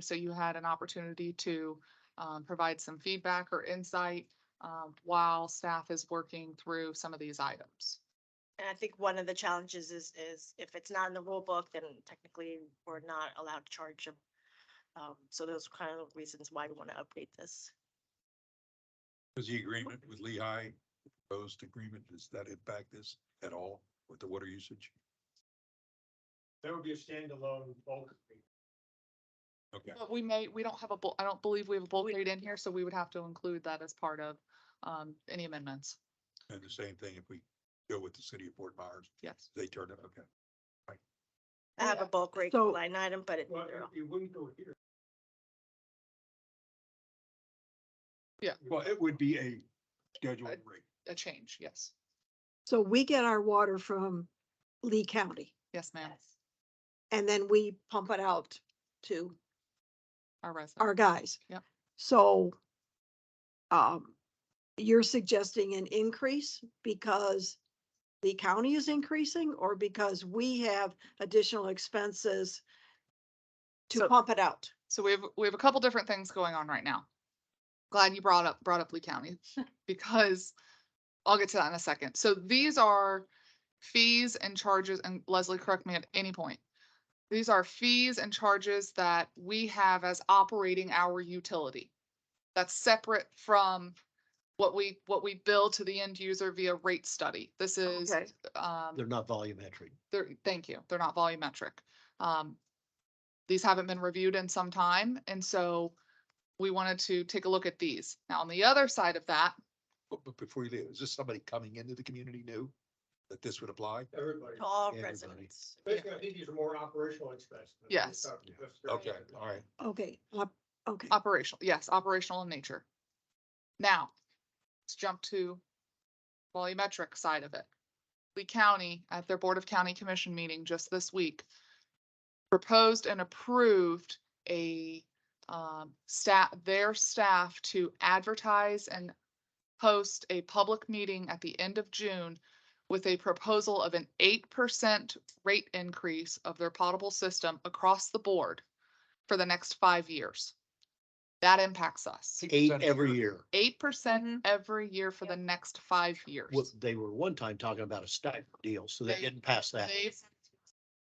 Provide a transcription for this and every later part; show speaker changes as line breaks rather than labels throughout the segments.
so you had an opportunity to um, provide some feedback or insight um, while staff is working through some of these items.
And I think one of the challenges is, is if it's not in the rule book, then technically we're not allowed to charge them. Um, so those are kind of the reasons why we want to update this.
Does the agreement with Lehigh, proposed agreement, does that impact this at all with the water usage?
That would be a standalone bulk. agreement.
Okay,
But we may, we don't have a, bul- I don't believe we have a bulk rate in here, so we would have to include that as part of um, any amendments.
and the same thing if we go with the city of Fort Myers,
Yes.
they turn it, okay.
I have a bulk rate
so-
line item, but it,
Well, it- it wouldn't go here.
Yeah.
Well, it would be a scheduled
Right.
rate.
A change, yes.
So we get our water from Lee County
Yes, ma'am.
and then we pump it out to
Our resident.
our guys.
Yep.
So um, you're suggesting an increase because the county is increasing or because we have additional expenses to
So-
pump it out?
So we have, we have a couple different things going on right now. Glad you brought up, brought up Lee County because I'll get to that in a second. So these are fees and charges, and Leslie, correct me at any point. These are fees and charges that we have as operating our utility. That's separate from what we, what we bill to the end user via rate study. This is,
Okay.
um,
They're not volumetric.
they're, thank you, they're not volumetric. Um, these haven't been reviewed in some time, and so we wanted to take a look at these. Now, on the other side of that,
But, but before you leave, is this somebody coming into the community new that this would apply?
Everybody.
to all
Everybody.
residents.
Basically, I think these are more operational expenses. than
Yes.
stuff that's-
Okay, all right.
Okay, op- okay.
operational, yes, operational in nature. Now, let's jump to volumetric side of it. Lee County, at their Board of County Commission meeting just this week, proposed and approved a um, staff, their staff to advertise and host a public meeting at the end of June with a proposal of an eight percent rate increase of their potable system across the board for the next five years. That impacts us.
Eight
6% a
every year.
Eight percent every year for the next five years.
mm-hmm. What they were one time talking about a stipend deal, so they
They-
didn't pass that.
They,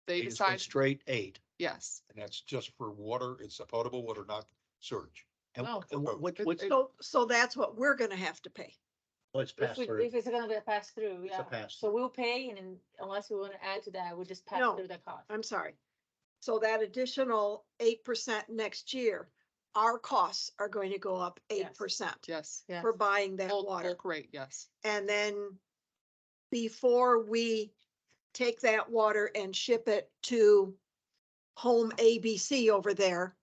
They
they
just went
decided,
Straight eight.
yes,
And that's just for water, it's a potable water, not surge.
And
No.
and what,
It-
what's,
it-
So, so that's what we're gonna have to pay.
what's
If
passed
we,
through?
if it's gonna be a pass through,
It's a
yeah.
pass.
So we'll pay and then unless we wanna add to that, we'll just pass
No.
through the cost.
I'm sorry. So that additional eight percent next year, our costs are going to go up eight
Yes.
percent
yes.
Yeah.
for buying that
Bulk,
water.
bulk rate, yes.
And then before we take that water and ship it to home ABC over there,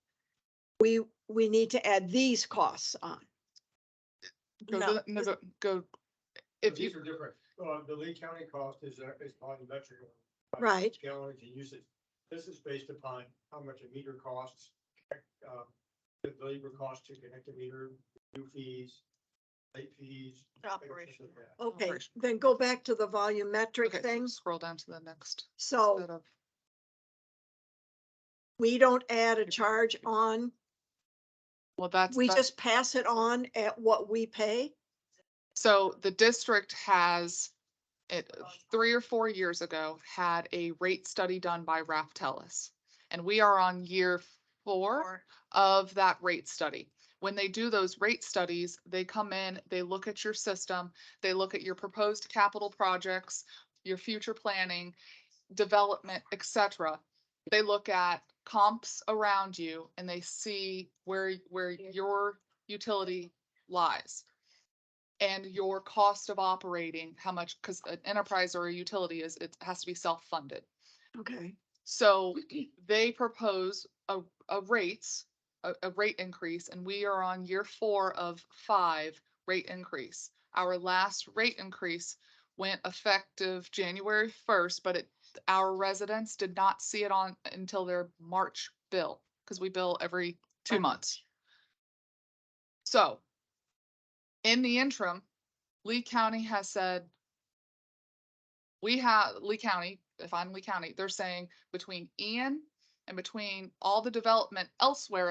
we, we need to add these costs on.
Go,
No.
to the- no, go, go.
But
If
These
you,
are different. Uh, the Lee County cost is, uh, is volumetric.
Right.
Gallons and usage. This is based upon how much a meter costs, uh, the labor cost to connect a meter, new fees, late fees. things
Operational.
like that.
Okay,
Operation. Oh,
then go back to the
okay,
volumetric
so
things.
scroll down to the next
So
set of,
we don't add a charge on,
well, that's.
we
that-
just pass it on at what we pay.
So the district has, it, three or four years ago, had a rate study done by Raftellus. And we are on year four.
Or
of that rate study. When they do those rate studies, they come in, they look at your system, they look at your proposed capital projects, your future planning, development, et cetera. They look at comps around you and they see where, where your utility lies. And your cost of operating, how much, because an enterprise or a utility is, it has to be self-funded.
Okay.
So they propose a, a rates, a, a rate increase, and we are on year four of five rate increase. Our last rate increase went effective January first, but it, our residents did not see it on until their March bill, because we bill every two months. So in the interim, Lee County has said we have, Lee County, if I'm Lee County, they're saying between Ian and between all the development elsewhere